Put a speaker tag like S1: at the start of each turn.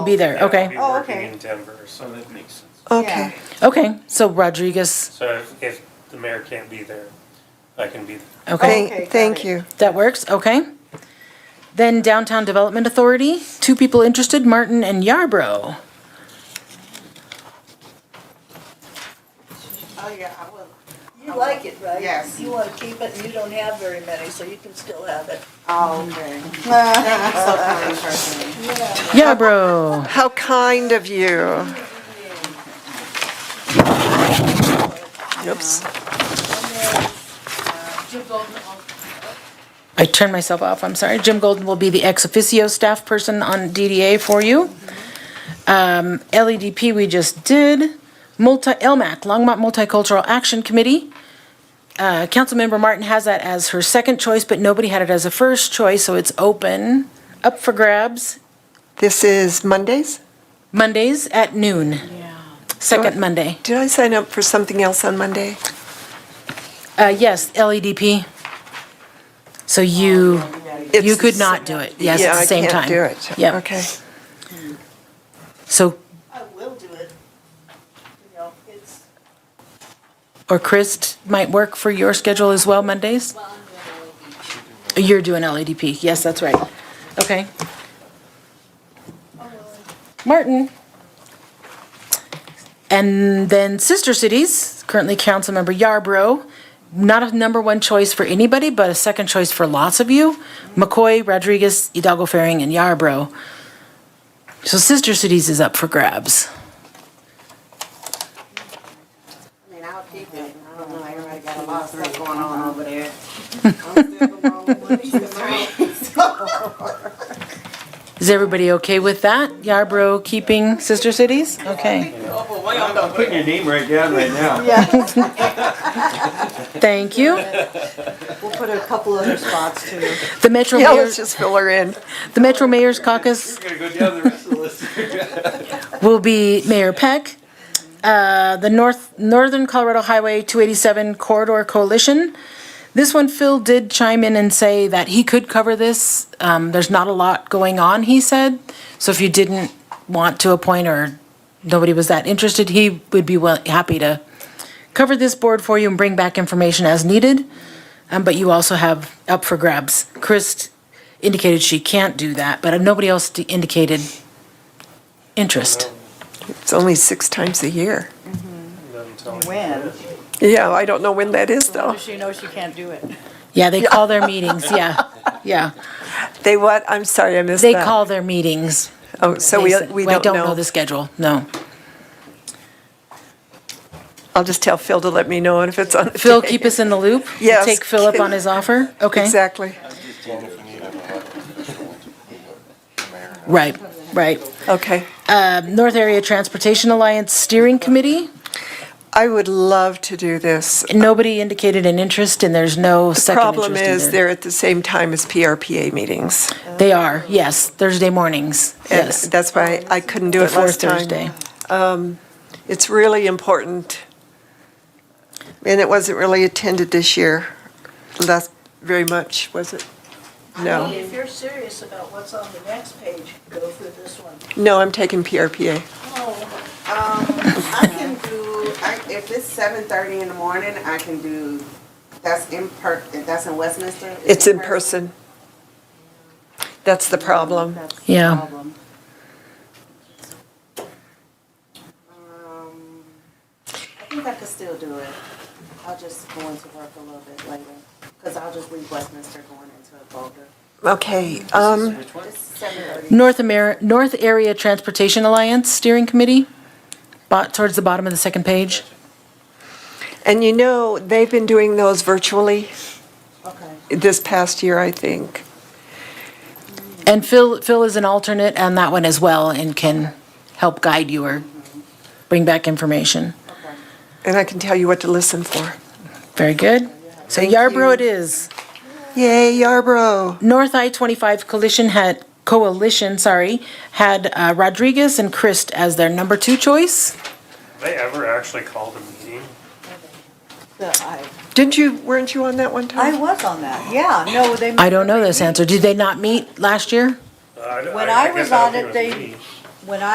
S1: Be there,
S2: Yeah, I'll
S1: okay.
S2: be
S3: Oh,
S2: working
S3: okay.
S2: in Denver, so that makes sense.
S3: Okay.
S1: Okay, so Rodriguez,
S2: So if, if the mayor can't be there, I can be
S1: okay,
S2: there.
S3: Okay, got
S4: Thank, thank
S3: it.
S4: you.
S1: that works, okay. Then Downtown Development Authority, two people interested, Martin and Yarbrough.
S3: Oh, yeah, I will.
S5: You like it, right?
S3: Yes.
S5: You want to keep it, and you don't have very many, so you can still have it.
S3: Oh, okay. Thank you so kindly, Stephanie.
S1: Yarbrough,
S4: How kind of you. Oops.
S1: I turned myself off, I'm sorry. Jim Golden will be the ex officio staff person on DDA for you. Um, LEDP, we just did. Multi, LMAC, Longmont Multicultural Action Committee. Uh, Councilmember Martin has that as her second choice, but nobody had it as a first choice, so it's open, up for grabs.
S4: This is Mondays?
S1: Mondays at noon. Yeah. Second Monday.
S4: Did I sign up for something else on Monday?
S1: Uh, yes, LEDP. So you,
S4: It's
S1: you could
S4: the
S1: not do it. Yes, at the same time.
S4: Yeah, I can't do it.
S1: Yep.
S4: Okay.
S1: So,
S5: I will do it. You know, it's,
S1: or Chris might work for your schedule as well Mondays? You're doing LEDP. Yes, that's right. Okay. Martin. And then Sister Cities, currently Councilmember Yarbrough. Not a number one choice for anybody, but a second choice for lots of you. McCoy, Rodriguez, Hidalgo Faring, and Yarbrough. So Sister Cities is up for grabs.
S3: I mean, I'll keep it. I don't know, everybody got a lot of stuff going on over there. I'm still the wrong one.
S1: Is everybody okay with that? Yarbrough keeping Sister Cities? Okay,
S6: I'm putting your name right down right now.
S1: thank you.
S5: we'll put a couple other spots too.
S1: The Metro
S4: Yeah,
S1: Mayor,
S4: let's just fill her in.
S1: the Metro Mayor's Caucus
S6: We're gonna go down the rest of the list.
S1: will be Mayor Peck. Uh, the North, Northern Colorado Highway 287 Corridor Coalition. This one, Phil did chime in and say that he could cover this. Um, there's not a lot going on, he said. So if you didn't want to appoint or nobody was that interested, he would be well, happy to cover this board for you and bring back information as needed. Um, but you also have up for grabs. Chris indicated she can't do that, but nobody else d- indicated interest.
S4: It's only six times a year.
S2: Not until-
S3: Um,
S5: When?
S4: Yeah, I don't know when that is, though.
S5: She knows she can't do it.
S1: Yeah, they call their meetings, yeah, yeah.
S4: They what? I'm sorry, I missed
S1: They
S4: that.
S1: call their meetings.
S4: Oh, so
S1: They
S4: we
S1: s-
S4: we don't know.
S1: the schedule, no.
S4: I'll just tell Phil to let me know if it's on the
S1: Phil,
S4: day.
S1: keep us in the loop?
S4: Yes.
S1: Take Phil up on his offer? Okay,
S4: Exactly.
S1: right, right. Um,
S4: Okay.
S1: North Area Transportation Alliance Steering Committee,
S4: I would love to do this.
S1: nobody indicated an interest, and there's no second
S4: Problem
S1: interest
S4: is,
S1: either.
S4: they're at the same time as PRPA meetings.
S1: They are, yes, Thursday mornings,
S4: And
S1: yes.
S4: that's why I couldn't do it
S1: Before
S4: last
S1: Thursday.
S4: time. It's really important. And it wasn't really attended this year, last, very much, was it?
S5: I mean,
S4: No.
S5: if you're serious about what's on the next page, go through this one.
S4: No, I'm taking PRPA.
S5: Oh,
S3: I can do, I- if it's seven thirty in the morning, I can do, that's in per, that's in Westminster? Is
S4: It's
S3: it
S4: in person. That's the problem.
S1: Yeah,
S3: Um, I think I could still do it. I'll just go into work a little bit later, because I'll just leave Westminster going into Boulder.
S4: Okay, um,
S3: It's seven thirty.
S1: North Amer, North Area Transportation Alliance Steering Committee, bot, towards the bottom of the second page.
S4: and you know, they've been doing those virtually
S3: Okay.
S4: this past year, I think.
S1: And Phil, Phil is an alternate on that one as well and can help guide you or bring back information.
S4: And I can tell you what to listen for.
S1: Very good. So
S4: Thank
S1: Yarborough
S4: you.
S1: it is.
S4: Yay, Yarborough.
S1: North I-25 Coalition had, Coalition, sorry, had uh, Rodriguez and Christ as their number two choice.
S2: Have They ever actually called a meeting?
S5: the- I,
S4: Didn't you, weren't you on that one time?
S5: I was on that, yeah, no, they.
S1: I don't know this answer. Did they not meet last year?
S2: Uh, I-
S5: When
S2: I
S5: I
S2: guess
S5: was
S2: I
S5: on
S2: don't
S5: it,
S2: think
S5: they,
S2: was
S5: when I.